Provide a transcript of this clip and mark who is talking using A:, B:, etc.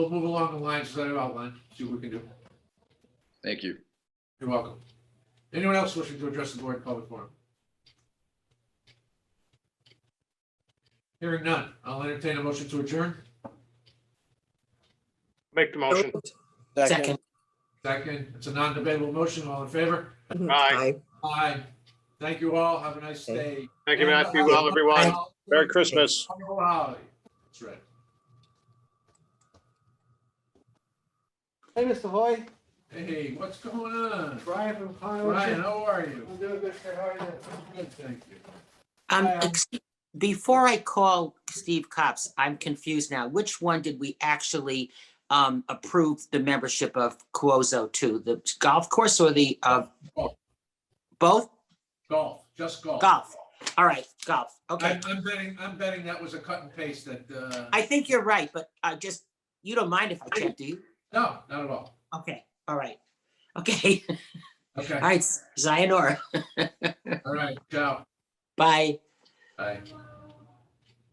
A: We'll move along the lines that I've outlined, see what we can do.
B: Thank you.
A: You're welcome. Anyone else wishing to address the board in public forum? Hearing none, I'll entertain a motion to adjourn.
C: Make the
D: So
C: motion.
D: moved.
E: Second.
A: Second, it's a non-debatable motion. All in favor?
C: Aye.
A: Aye. Thank you all. Have a nice day.
C: Thank you, Matt. Be well, everyone. Merry Christmas.
A: Wonderful holiday. That's right.
F: Hey, Mr. Hoy,
A: Hey, what's going on?
F: Brian from
A: Ryan,
F: Conneaut.
A: how are you?
F: I'm doing good, sir. How are you?
A: Good, thank you.
E: Um,
F: Uh,
E: ex- before I call Steve Cops, I'm confused now. Which one did we actually um, approve the membership of Cuozo to? The golf course or the, uh,
A: Golf.
E: both?
A: Golf, just golf.
E: Golf. All right, golf. Okay.
A: I- I'm betting, I'm betting that was a cut and paste that, uh,
E: I think you're right, but I just, you don't mind if I check, do you?
A: no, not at all.
E: Okay, all right. Okay,
A: Okay,
E: all right, sayonara.
A: all right, ciao.
E: Bye.
A: Bye.